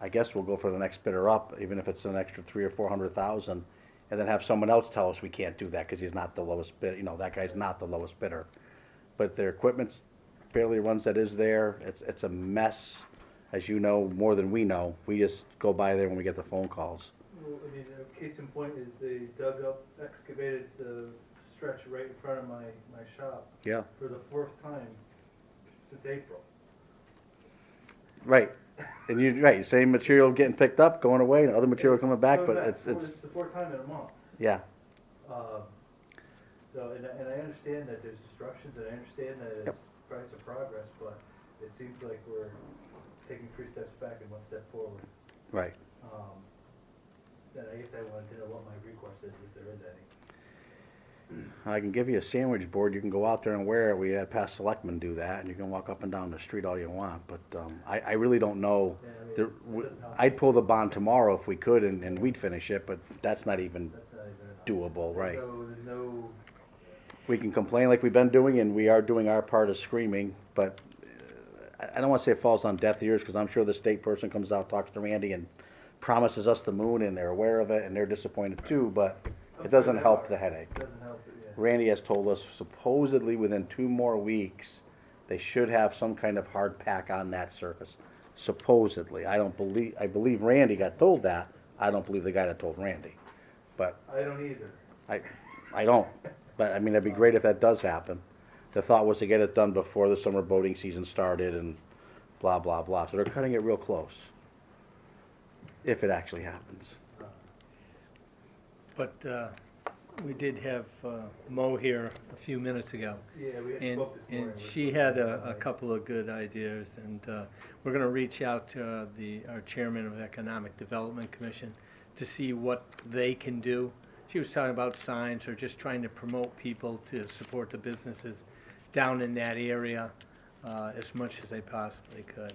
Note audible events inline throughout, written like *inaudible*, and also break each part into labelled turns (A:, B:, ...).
A: I guess we'll go for the next bidder up, even if it's an extra three or four hundred thousand, and then have someone else tell us we can't do that because he's not the lowest bid, you know, that guy's not the lowest bidder. But their equipment's barely runs that is there, it's, it's a mess, as you know, more than we know, we just go by there when we get the phone calls.
B: Well, I mean, a case in point is they dug up, excavated the stretch right in front of my, my shop
A: Yeah.
B: for the fourth time since April.
A: Right, and you, right, same material getting picked up, going away, and other material coming back, but it's,
B: Well,
A: it's,
B: the fourth time in a month.
A: yeah,
B: Um, So, and, I- and I understand that there's disruptions, and I understand that it's price of progress, but it seems like we're taking three steps back and one step forward.
A: right.
B: Um, Then I guess I wanted to know what my recourse is, if there is any.
A: I can give you a sandwich board, you can go out there and wear it, we had past selectmen do that, and you can walk up and down the street all you want, but, um, I, I really don't know.
B: Yeah, I mean,
A: There-
B: it
A: w-
B: doesn't help.
A: I'd pull the bond tomorrow if we could, and, and we'd finish it, but that's not even
B: That's not even. an option.
A: doable, right?
B: So there's no,
A: We can complain like we've been doing, and we are doing our part of screaming, but uh, I I don't want to say it falls on deaf ears, because I'm sure the state person comes out, talks to Randy, and promises us the moon, and they're aware of it, and they're disappointed too, but
B: I'm sure
A: it doesn't
B: they
A: help
B: are.
A: the headache.
B: doesn't help, it, yeah.
A: Randy has told us supposedly within two more weeks, they should have some kind of hard pack on that surface. Supposedly, I don't believe, I believe Randy got told that, I don't believe the guy that told Randy. But
B: I don't either.
A: I, I don't, but I mean, it'd be great if that does happen. The thought was to get it done before the summer boating season started and blah, blah, blah, so they're cutting it real close. If it actually happens.
C: But uh, we did have uh, Mo here a few minutes ago.
B: Yeah, we had
C: And,
B: spoke this morning.
C: and
B: We-
C: she had a, a
B: Right.
C: couple of good ideas, and uh, we're gonna reach out to uh, the, our chairman of Economic Development Commission to see what they can do. She was talking about signs or just trying to promote people to support the businesses down in that area uh, as much as they possibly could,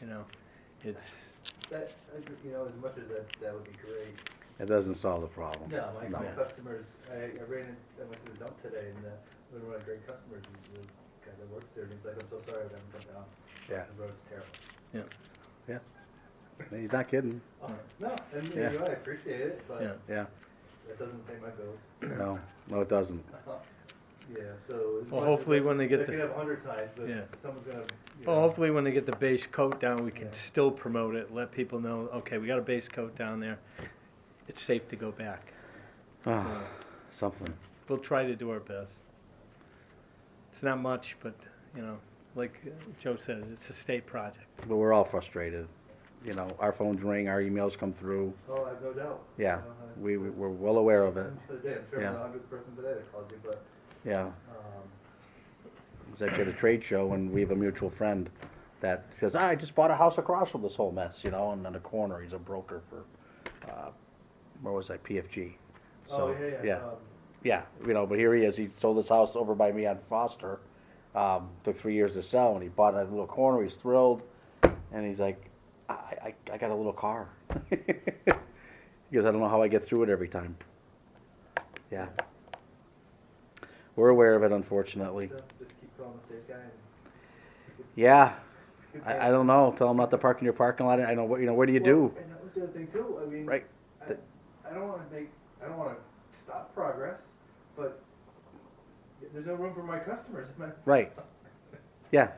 C: you know? It's,
B: That, I- you know, as much as that, that would be great.
A: It doesn't solve the problem.
B: No, my, my customers, I, I ran in, I went to the dump today and, uh, one of my great customers, he's the guy that works there, and he's like, I'm so sorry, I haven't come down.
A: Yeah,
B: The road's terrible.
C: yeah,
A: yeah. He's not kidding,
B: Oh, No, and, you
A: Yeah.
B: know, I appreciate it, but
C: yeah.
A: yeah.
B: that doesn't pay my bills.
A: No, no, it doesn't.
B: Yeah, so. as much
C: Well,
B: as
C: hopefully
B: I-
C: when they get the-
B: I could have a hundred times, but
C: Yeah.
B: someone's gonna, you
C: Well,
B: know,
C: hopefully when they get the base coat down, we
B: Yeah.
C: can still promote it, let people know, okay, we got a base coat down there. It's safe to go back.
A: Ah, something.
C: We'll try to do our best. It's not much, but, you know, like Joe says, it's a state project.
A: But we're all frustrated. You know, our phones ring, our emails come through.
B: oh, I've no doubt.
A: Yeah,
B: You know, I-
A: we, we're well aware of it.
B: For the day, I'm sure
A: Yeah.
B: I'm the hundredth person today that called you, but,
A: Yeah.
B: um,
A: I was actually at a trade show and we have a mutual friend that says, "Ah, I just bought a house across from this whole mess, you know, and on the corner, he's a broker for, uh, where was I, PFG.
B: oh,
A: So,
B: yeah, yeah.
A: yeah,
B: um,
A: yeah, you know, but here he is, he sold this house over by me on Foster. Um, took three years to sell and he bought it in a little corner, he's thrilled. And he's like, I, I, I got a little car. *laughs* He goes, I don't know how I get through it every time. Yeah. We're aware of it unfortunately.
B: So just keep calling the state guy and.
A: Yeah, I, I don't know. Tell them not to park in your parking lot. I know what you know. What do you do?
B: Well, And that was the other thing too, I mean.
A: Right.
B: I,
A: The-
B: I don't wanna make, I don't wanna stop progress, but there's no room for my customers, *laughs* man.
A: Right. Yeah.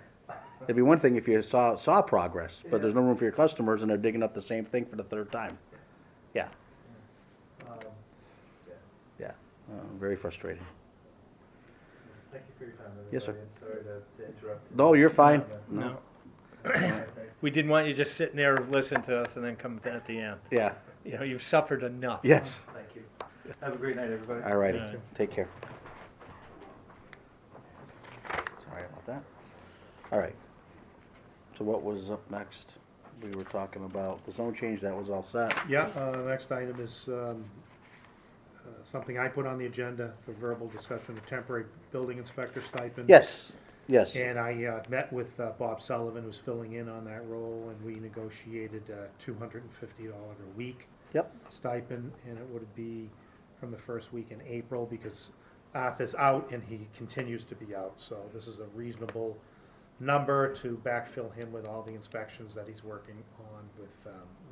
A: It'd be one thing if you saw saw progress, but there's no room for your customers, and they're digging up the same thing for the third time. Yeah,
B: Um, yeah.
A: yeah. Uh, very frustrating.
B: Thank you for your time, everybody.
A: Yes, sir.
B: I'm Sorry to, to interrupt.
A: No, you're fine.
B: No.
A: No.
C: We didn't want you just sitting there, listening to us, and then come at the end.
A: Yeah.
C: You know, you've suffered enough.
A: Yes.
B: Thank you. Have a great night, everybody.
A: All righty.
C: Yeah.
A: Take care. Sorry about that. All right. So what was up next? We were talking about the zone change. That was all set.
D: Yeah, uh, the next item is um, uh, something I put on the agenda for verbal discussion, of temporary building inspector stipend.
A: Yes. Yes.
D: And I uh, met with uh, Bob Sullivan, who's filling in on that role, and we negotiated uh, a $250 a week
A: Yep.
D: stipend, and it would be from the first week in April, because Arthur's out and he continues to be out, so this is a reasonable number to backfill him with all the inspections that he's working on with um,